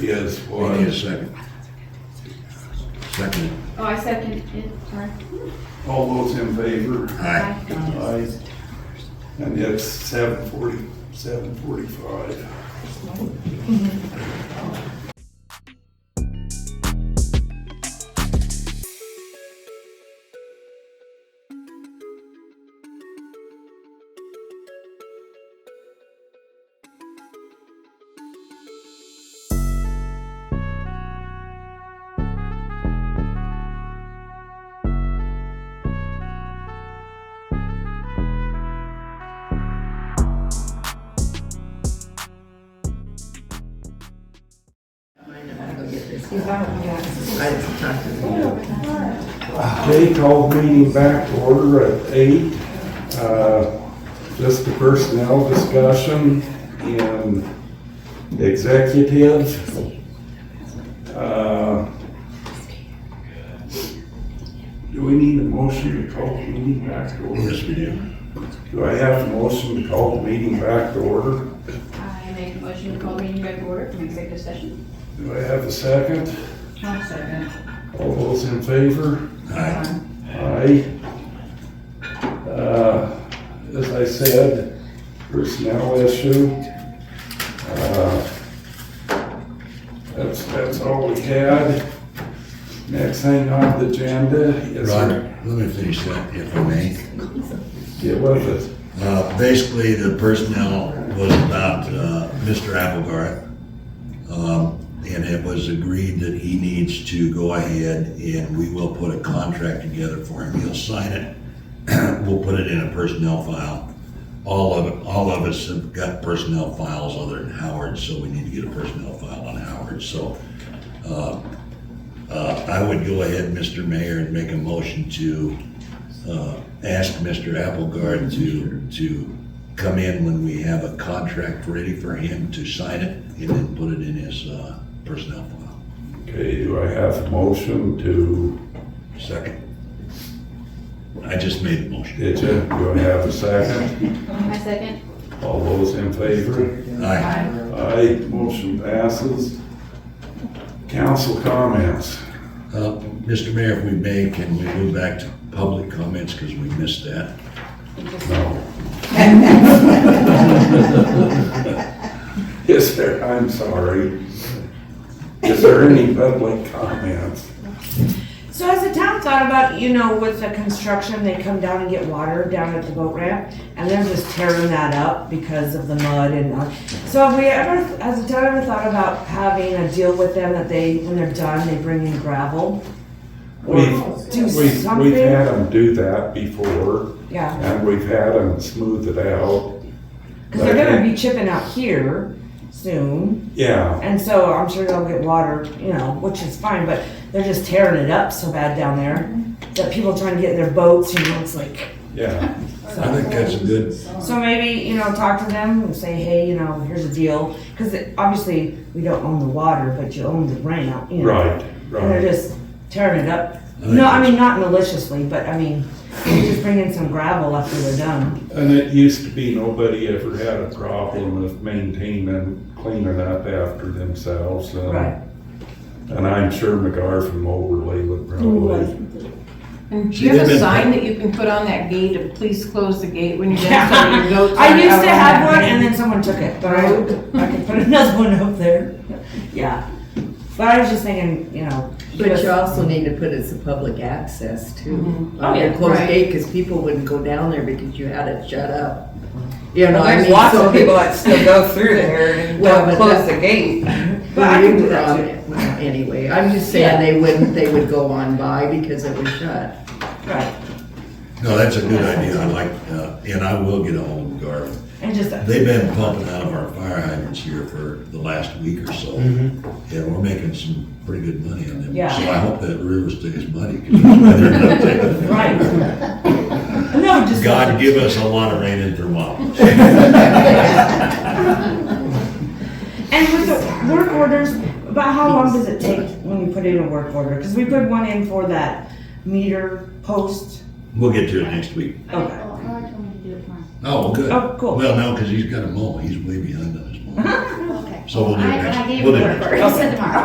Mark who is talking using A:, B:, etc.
A: Yes,
B: We need a
A: was.
B: second. Second,
C: Oh, I second it, sorry.
A: All those in favor?
B: aye.
A: Aye. And that's seven forty, seven forty-five.
D: I didn't talk to them.
A: Jay called meeting back to order at eight. Uh, Just a personnel discussion in executive. Uh, Do we need a motion to call the meeting back to order?
B: Yes, we do.
A: Do I have a motion to call the meeting back to order?
C: I make a motion to call the meeting back to order from executive session.
A: Do I have a second?
C: I'll second.
A: All those in favor?
B: Aye.
A: Aye. Uh, As I said, personnel issue. Uh, That's, that's all we had. Next thing on the agenda is.
B: Roger, let me finish that, if I may.
A: Get with it.
B: Uh, Basically, the personnel was about uh, Mr. Applegarth. Um, And it was agreed that he needs to go ahead and we will put a contract together for him. He'll sign it. We'll put it in a personnel file. All of, all of us have got personnel files other than Howard, so we need to get a personnel file on Howard. So uh, uh, I would go ahead, Mr. Mayor, and make a motion to uh, ask Mr. Applegard to, to come in when we have a contract ready for him to sign it and then put it in his uh, personnel file.
A: Okay, do I have a motion to,
B: Second. I just made a motion.
A: did you, do I have a second?
C: I second.
A: All those in favor?
B: Aye.
A: Aye, motion passes. Council comments.
B: Uh, Mr. Mayor, if we may, can we move back to public comments because we missed that?
A: No. Is there, I'm sorry. Is there any public comments?
E: So has the town thought about, you know, with the construction, they come down and get water down at the boat ramp, and they're just tearing that up because of the mud and, uh, so have we ever, has the town ever thought about having a deal with them that they, when they're done, they bring in gravel? Or
A: We've,
E: do
A: we've, we've
E: something?
A: had them do that before,
E: Yeah,
A: and we've had them smooth it out.
E: cause they're gonna be chipping out here soon,
A: Yeah,
E: and so I'm sure they'll get water, you know, which is fine, but they're just tearing it up so bad down there that people trying to get in their boats, you know, it's like,
A: yeah.
E: so.
B: I think that's a good,
E: So maybe, you know, talk to them and say, hey, you know, here's the deal, because obviously we don't own the water, but you own the ramp, you know.
A: Right,
E: And they're
A: right.
E: just tearing it up.
B: think
E: No, I
B: that's-
E: mean, not maliciously, but I mean, just bring in some gravel after they're done.
A: And it used to be nobody ever had a problem with maintaining, cleaning up after themselves. and-
E: Right.
A: And I'm sure McGar from Overley would probably.
F: And
B: She
F: do Mm-hmm. you have
B: did
F: a
B: it.
F: sign that you can put on that gate of please close the gate when you're done so your goats
E: I
F: aren't out
E: used to
F: on
E: have
F: that
E: one
F: gate?
E: and then someone took it, but I, I could put another one up there. Yeah. But I was just thinking, you know.
D: But
E: just-
D: you also need to put it as a public access too.
C: Oh, yeah,
D: A Closed
F: right.
D: gate, because people wouldn't go down there because you had it shut up. You know, I
G: There's
D: mean.
G: lots
D: so
G: of people that still go through there and
D: Well,
G: don't
D: but
G: close
D: that-
G: the gate.
E: But I can do
D: were
E: that
D: on
E: too.
D: it. Well, Anyway, I'm just saying they wouldn't, they would go on by because it was shut.
E: Right,
B: no, that's a good idea. I like, uh, and I will get ahold of Garth.
E: and just,
B: They've been pumping out of our fire hydrants here for the last week or so. Yeah, we're making some pretty good money on them.
E: Mm-hmm. Yeah.
B: So I hope that river stays muddy. 'cause they're not taking it.
E: right. No, just.
B: God give us a lot of rain in Thermopolis.
E: And with the work orders, about how long does it take when you put in a work order? Because we put one in for that meter post.
B: We'll get to it next week.
E: Okay.
C: Oh, I told me to do it tomorrow.
B: Oh, good.
E: Oh, cool. Uh-huh.
B: Well, no, because he's got a mow. He's way behind on his mow.
C: Okay.
B: So we'll do it
C: I,
B: next.
C: I gave
B: we'll
C: it
B: do
C: to
B: it
C: her
B: next.
C: first, tomorrow.